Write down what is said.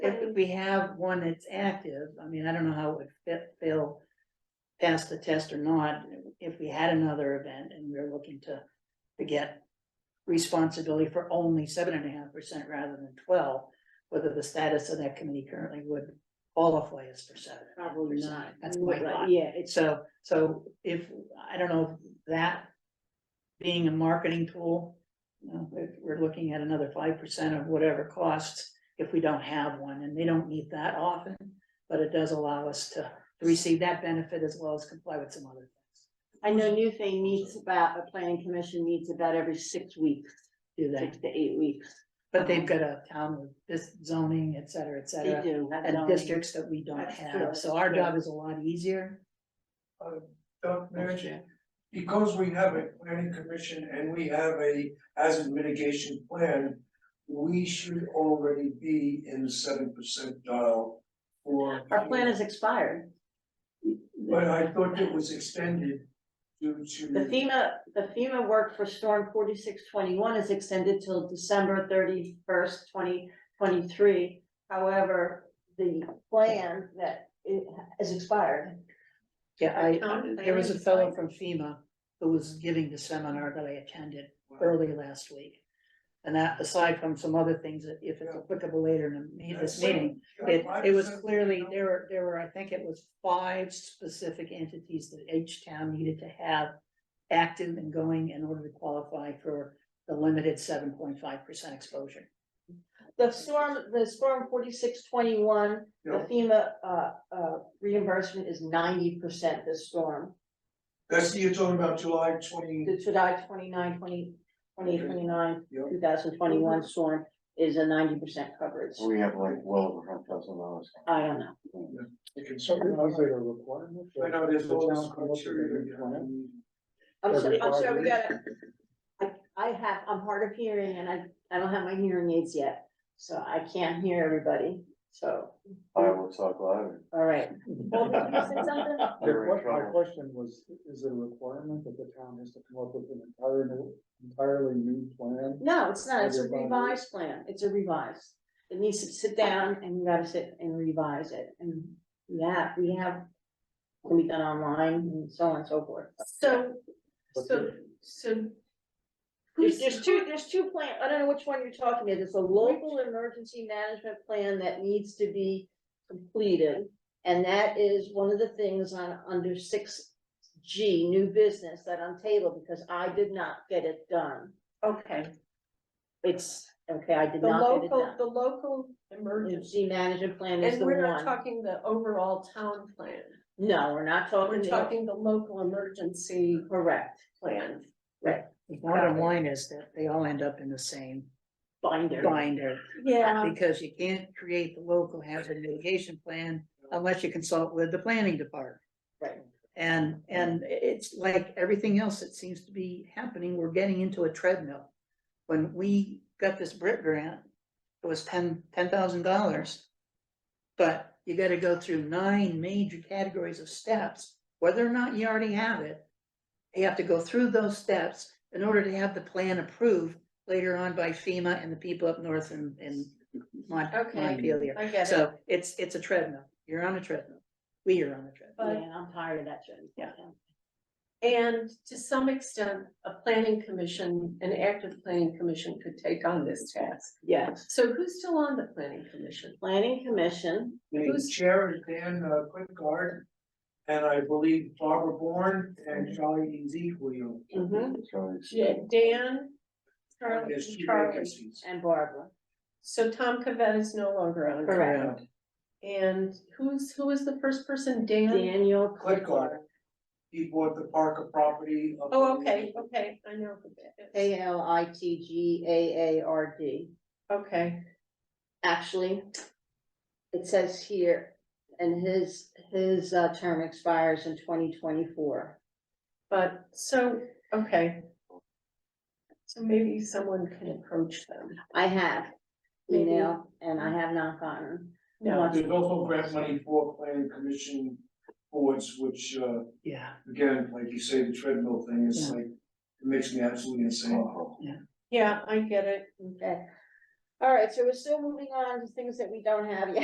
if we have one that's active, I mean, I don't know how it would fit, fail. Pass the test or not, if we had another event and we we're looking to, to get. Responsibility for only seven and a half percent rather than twelve, whether the status of that committee currently would qualify us for seven. Probably not. That's my Right, thought. Yeah, it's, So, so if, I don't know, if that being a marketing tool, you know, if we're looking at another five percent of whatever costs if we don't have one, and they don't need that often, but it does allow us to receive that benefit as well as comply with some other things. I know New Thing meets about, a planning commission meets about every six weeks, Do six that, to eight weeks. but they've got a town with this zoning, et cetera, et They cetera, do. and districts that we don't That's true, have, so our that's true. job is a lot easier. uh, Doc, Mary, because we have a planning commission and we have a hazard mitigation plan, we should already be in the seven percentile for. Our plan is expired. But I thought it was extended due The Mm. to, FEMA, the FEMA work for storm forty-six twenty-one is extended till December thirty-first, twenty twenty-three. However, the plan that it has expired. Yeah, I, Town there was a planning's fellow fine. from FEMA who was giving the seminar that I attended early last week. And that, aside from some other things, that if it's applicable later in the me- this meeting, it, it was clearly, there were, there were, I think it was five specific entities that each town needed to have active and going in order to qualify for the limited seven point five percent exposure. The storm, the storm forty-six twenty-one, the Yeah. FEMA, uh, uh, reimbursement is ninety percent this storm. That's, you're talking about July twenty, The July twenty-nine, twenty, twenty twenty-nine, yeah. two thousand twenty-one storm is a ninety percent coverage. We have like well over hundred thousand dollars. I don't know. So is it a requirement? I know there's The all this town come up with a criteria. new plan? I'm sorry, I'm sorry, we Everybody. gotta. I, I have, I'm hard of hearing and I, I don't have my hearing aids yet, so I can't hear everybody, so, I will talk louder. all right. Well, did you say something? The You're in que- My trouble. question was, is it a requirement that the town has to come up with an entire new, entirely new plan? No, it's not, it's a Everybody. revised plan, it's a revised. It needs to sit down and you gotta sit and revise it, and yeah, we have. Can be done online and so on and so forth. So, But so, so. There's, who's- there's two, there's two plan, I don't know which one you're talking about, it's a local emergency management plan that needs to be completed. And that is one of the things on, under six G, new business that I'm tabled, because I did not get it done. Okay, It's, okay, I did the not get it local, done. the local Emergency emergency, management plan is and the we're one, not talking the overall town plan, no, we're not we're talking, the- talking the local emergency correct, plan. The bottom line is that they all end up in the same binder. binder. Yeah. Because you can't create the local hazard mitigation plan unless you consult with the planning department. Right. And, and it's like everything else that seems to be happening, we're getting into a treadmill. When we got this BRIC grant, it was ten, ten thousand dollars. But you gotta go through nine major categories of steps, whether or not you already have it. You have to go through those steps in order to have the plan approved later on by FEMA and the people up north in, in Mont- Okay. Montpelier. I get it, So it's, it's a treadmill. You're on a treadmill. We are on a treadmill. Yeah, but, and I'm tired of that shit. Yeah. and to some extent, a planning commission, an active planning commission could take on this task. Yes, So who's still on the planning commission? planning commission, The Who's- chair is Dan uh, Quickguard, and I believe Barbara Bourne and Charlie Ezekiel. Mm-hmm. Mhm. Charlie's- Ja- Dan, And Charlie, there's two Charlie, vacancies. and Barbara, so Tom Cavett is no longer on. there. correct. And who's, who is the first person, Dan? Daniel Click on Clifford, He bought the Parker property. up Oh, in- okay, okay, I know who that is. A L I T G A A R D. Okay, Actually, it says here, and his, his uh, term expires in twenty twenty-four. but, so, okay. So maybe someone can approach them. I have Maybe. email and I have not gotten. No, There's also grant money for planning commission boards, which, uh, Yeah. again, like you say, the treadmill thing is like, it makes me absolutely insane. Wow. yeah, I get it. Okay. All right, so we're still moving on to things that we don't have yet.